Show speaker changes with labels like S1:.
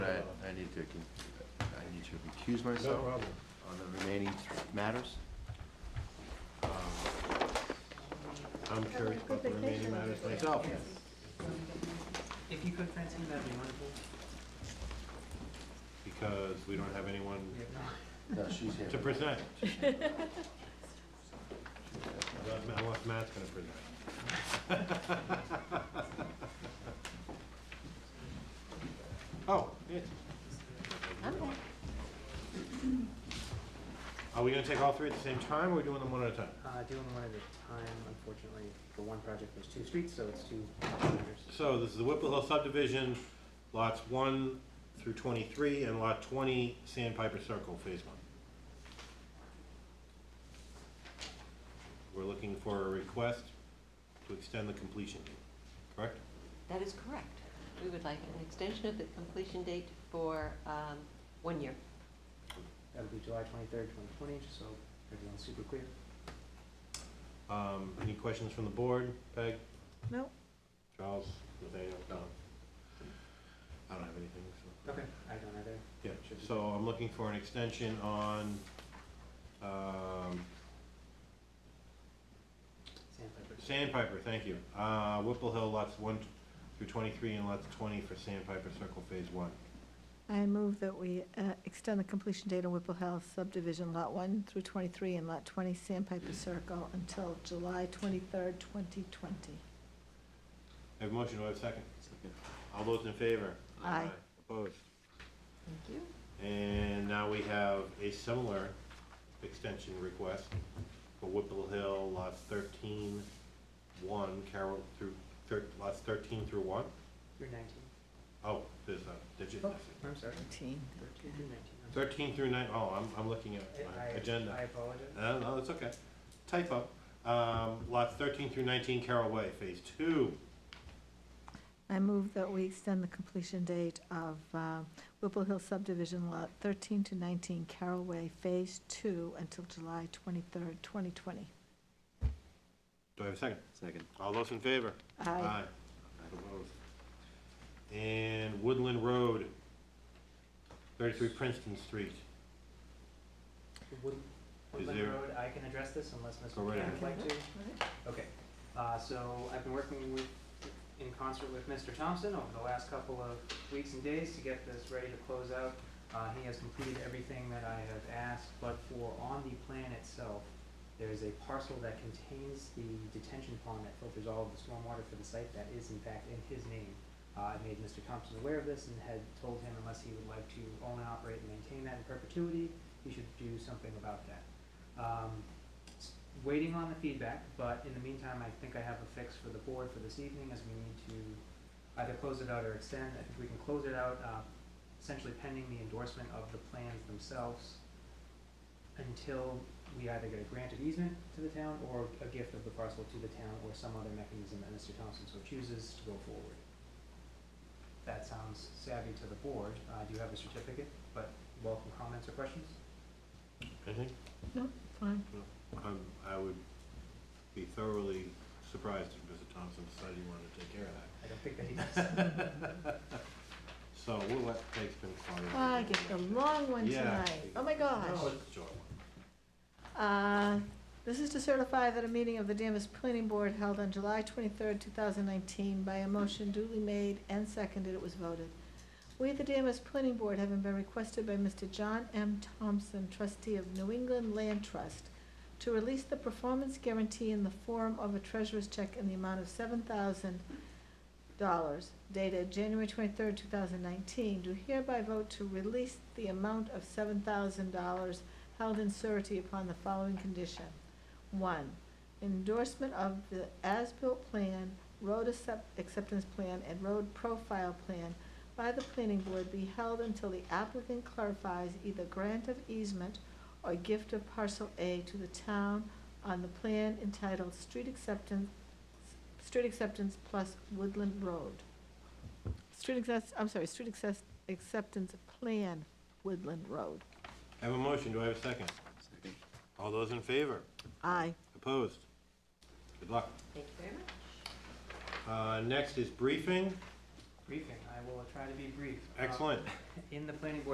S1: need to, con- I need to recuse
S2: No
S1: myself
S2: problem.
S1: on the remaining matters.
S2: um, I'm curious about the remaining matters myself.
S3: If you could, Francine, that'd be wonderful.
S2: because we don't have anyone
S1: No, she's here.
S2: to present. Unless Matt's going to present. Oh, yeah. Are we going to take all three at the same time, or are we doing them one at a time?
S3: Uh, doing one at a time, unfortunately, for one project, there's two streets, so it's two matters.
S2: So this is the Whipple Hill subdivision, lots 1 through 23, and lot 20, Sandpiper Circle, Phase 1. We're looking for a request to extend the completion date, correct?
S4: That is correct. We would like an extension of the completion date for um, one year.
S3: That'll be July twenty-third, twenty twenty, just so everyone's super clear.
S2: Um, Any questions from the board? Peg,
S4: No.
S2: Charles, Nathaniel, Don? I don't have anything, so.
S3: Okay. I don't either.
S2: Yeah, so I'm looking for an extension on, um,
S3: Sandpiper.
S2: Sandpiper, thank you. Uh, Whipple Hill lots 1 through 23 and lots 20 for Sandpiper Circle Phase 1.
S5: I move that we uh, extend the completion date on Whipple Hill subdivision, Lot 1 through 23 and Lot 20 Sandpiper Circle until July 23rd, 2020.
S2: I have a motion, do I have a second? Second. All those in favor?
S5: Aye.
S2: Opposed?
S4: Thank you.
S2: And now we have a similar extension request for Whipple Hill lots 13, 1, Carroll through, thir- lots 13 through 1?
S3: Through nineteen.
S2: Oh, there's a digit
S3: Oh,
S2: missing.
S3: I'm sorry.
S5: 13.
S3: Thirteen through nineteen. I'm sorry.
S2: 13 through 9, oh, I'm, I'm looking at my
S3: I- I-
S2: agenda.
S3: I apologize.
S2: Uh, No, no, it's okay. Typo. Um, lots 13 through 19 Carroll Way, Phase 2.
S5: I move that we extend the completion date of uh, Whipple Hill subdivision, Lot 13 to 19 Carroll Way, Phase 2, until July 23rd, 2020.
S2: Do I have a second?
S1: Second.
S2: All those in favor?
S5: Aye.
S2: Opposed. And Woodland Road, 33 Princeton Street.
S3: Wood- Woodland
S2: there-
S3: Road, I can address this unless Mr.
S2: Go right
S3: McCann would
S2: ahead.
S3: like to. Okay, uh, so I've been working with, in concert with Mr. Thompson over the last couple of weeks and days to get this ready to close out. Uh, he has completed everything that I have asked, but for on the plan itself, there is a parcel that contains the detention pond that filters all of the stormwater for the site that is in fact in his name. Uh, I made Mr. Thompson aware of this and had told him unless he would like to own, operate, and maintain that in perpetuity, he should do something about that. Um, s- waiting on the feedback, but in the meantime, I think I have a fix for the board for this evening, as we need to either close it out or extend. I think we can close it out, uh, essentially pending the endorsement of the plans themselves until we either get a grant of easement to the town or a gift of the parcel to the town or some other mechanism that Mr. Thompson so chooses to go forward. That sounds savvy to the board. Uh, do you have a certificate? But welcome comments or questions?
S2: I think,
S5: No, fine.
S2: um, I would be thoroughly surprised if Mr. Thompson decided he wanted to take care of that.
S3: I don't think that he does.
S2: So we'll let Peg spin forward.
S5: Ah, I get the long one
S2: Yeah.
S5: tonight. Oh, my gosh.
S2: No, it's a short one.
S5: Uh, This is to certify that a meeting of the Danvers Planning Board held on July 23rd, 2019, by a motion duly made and seconded, it was voted. We, the Danvers Planning Board, having been requested by Mr. John M. Thompson, trustee of New England Land Trust, to release the performance guarantee in the form of a treasurer's check in the amount of $7,000 dated January 23rd, 2019, do hereby vote to release the amount of $7,000 held in surety upon the following condition. One, endorsement of the as-built plan, road accept- acceptance plan, and road profile plan by the planning board be held until the applicant clarifies either grant of easement or gift of parcel A to the town on the plan entitled Street Acceptance, Street Acceptance Plus Woodland Road. Street access, I'm sorry, Street access, Acceptance Plan Woodland Road.
S2: I have a motion, do I have a second?
S1: Second.
S2: All those in favor?
S5: Aye.
S2: Opposed? Good luck.
S4: Thank you very much.
S2: Uh, Next is briefing.
S3: briefing. I will try to be brief. Uh,
S2: Excellent.
S3: In the planning board